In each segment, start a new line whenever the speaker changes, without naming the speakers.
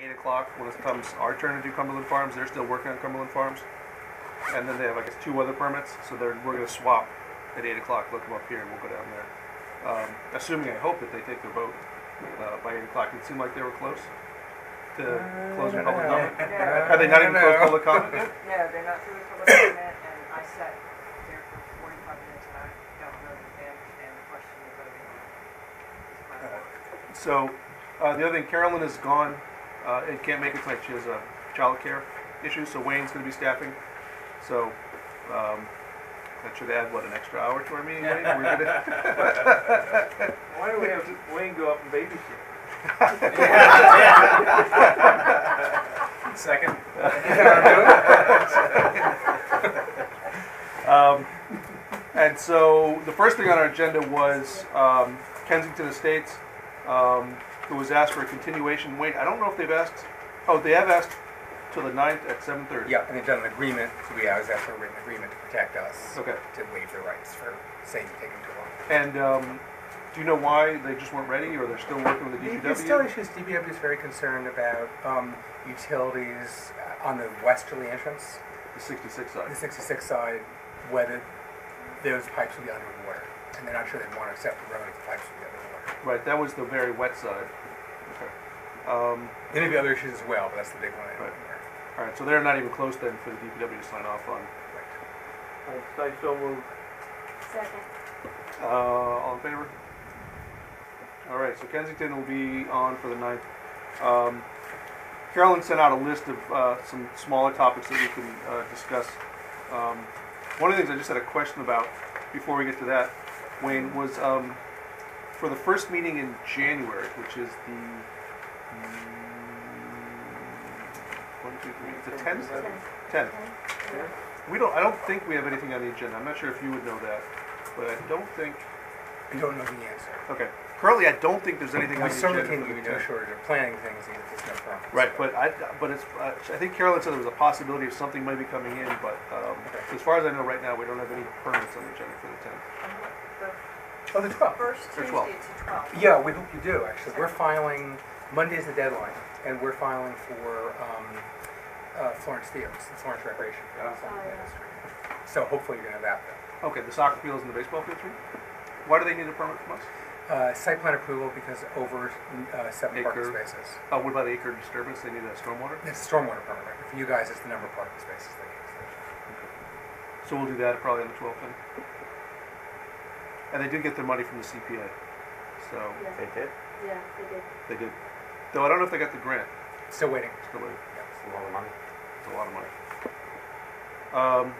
eight o'clock when it comes our turn to do Cumberland Farms. They're still working on Cumberland Farms. And then they have, I guess, two other permits, so they're, we're gonna swap at eight o'clock, look them up here and we'll go down there. Um, assuming, I hope that they take their vote, uh, by eight o'clock. It seemed like they were close to closing public comment.
Yeah.
Have they not even closed public comment yet?
No, they're not through the public comment, and I sat there for forty-five minutes, and I don't know that they understand the question they're voting on. It's my fault.
So, uh, the other thing, Carolyn is gone, uh, and can't make it tonight, she has a childcare issue, so Wayne's gonna be staffing. So, um, that should add, what, an extra hour to our meeting, Wayne? We're gonna-
Why do we have Wayne go up and babysit?
Second.
Um, and so, the first thing on our agenda was, um, Kensington Estates, um, who was asked for a continuation, Wayne, I don't know if they've asked, oh, they have asked till the ninth at seven thirty.
Yeah, and they've done an agreement, so we always ask for a written agreement to protect us,
Okay,
to waive their rights for saying taking too long.
and, um, do you know why they just weren't ready, or they're still working with the DPW?
There's still issues, DPW is very concerned about um, utilities uh, on the westerly entrance,
The sixty-six
the
side.
66 side, whether those pipes will be underwater. And they're not sure they'd want to accept the road if the pipes would be underwater.
Right, that was the very wet side. Okay. Um,
There may be other issues as well, but that's the big one. I
Right.
don't know.
all right, so they're not even close then for the DPW to sign off on.
I say so moved.
Second.
Uh, all in favor? All right, so Kensington will be on for the ninth. Um, Carolyn sent out a list of uh, some smaller topics that we can uh, discuss. Um, one of the things I just had a question about before we get to that, Wayne, was um, for the first meeting in January, which is the mm, one, two, three, it's the tenth, tenth. We don't. I don't think we have anything on the agenda. I'm not sure if you would know that, but I don't think.
We don't know the answer.
Okay. Currently, I don't think there's anything on
We
the
certainly
agenda.
can't
for
give you
the
no
10th.
shortage of planning things, even if there's no problem.
Right, but I, but it's, uh, I think Carolyn said there was a possibility of something might be coming in, but, um,
Okay.
as far as I know right now, we don't have any permits on the agenda for the tenth.
The
Oh, the 12th.
first
Or
Tuesday
twelve.
to twelve.
Yeah, we hope you do, actually. We're filing, Monday's the deadline, and we're filing for um, uh, Florence Fields, the Florence Recreation Field.
Oh, yeah.
So hopefully you're gonna have that.
Okay, the soccer fields and the baseball fields, right? Why do they need a permit from us?
Uh, Site plan approval because over uh, seven parking
Acre.
spaces.
Uh, what about acre disturbance? They need a stormwater?
It's a stormwater permit, right? For you guys, it's the number of parking spaces they need.
So we'll do that probably on the twelfth then. And they did get their money from the CPA, so
Yeah,
They did?
yeah, they did.
they did. Though I don't know if they got the grant,
Still waiting.
still waiting.
It's a lot of money.
It's a lot of money. Um,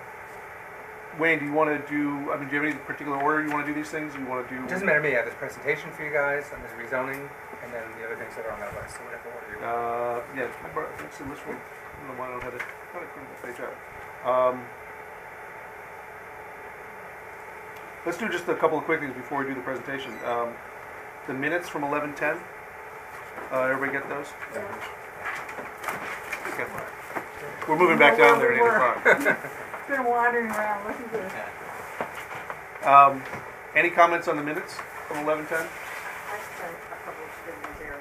Wayne, do you want to do? I mean, do you have any particular order you want to do these things? You want to do?
It doesn't matter to me, I have this presentation for you guys, and this rezoning, and then the other things that are on that list, so whatever order you want.
Uh, yeah, I brought it's in this one. I don't know why I don't have it. How did I print the page out? Um, let's do just a couple of quick things before we do the presentation. Um, the minutes from eleven ten. Uh, everybody get those?
Yeah.
Okay. We're moving back down there at eight o'clock.
Been wandering around looking for
Um, any comments on the minutes from eleven ten?
I sent a couple of students there,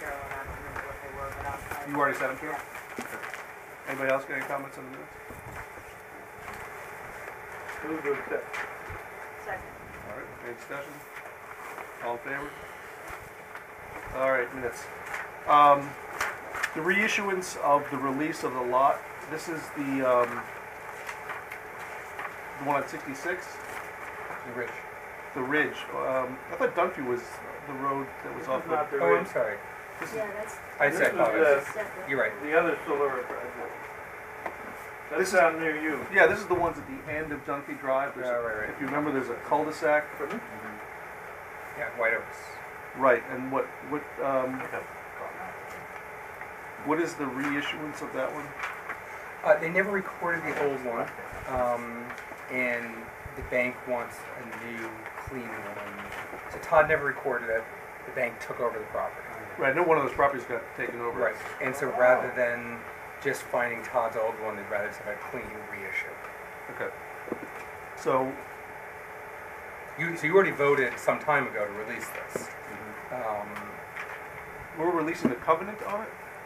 Carol, and I don't remember what they were, but I'll.
You already sent them to her?
Yeah.
Anybody else got any comments on the minutes?
Move to accept.
Second.
All right, any discussion? All in favor? All right, minutes. Um, the reissuance of the release of the lot, this is the, um, the one on sixty-six,
You rich.
the ridge. Um, I thought Dunphy was the road that was
This
off
is
the.
not the
Oh, I'm
red.
sorry.
This is,
Yeah, that's.
I
This
said
is,
apologize.
uh,
Second.
You're right.
The other Solera project.
This
That's
is-
down near you.
yeah, this is the ones at the end of Dunphy Drive. There's a-
Yeah, right, right.
If you remember, there's a cul-de-sac.
Yeah, White Oaks.
Right, and what, what, um, what is the reissuance of that one?
Uh, they never recorded the old one, um, and the bank wants a new, clean one. So Todd never recorded it. The bank took over the property.
Right, I know one of those properties got taken over.
Right. And so rather than just finding Todd's old one, they'd rather just have a clean reissue.
Okay. So,
You, so you already voted some time ago to release this. Um,
we're releasing the covenant on it?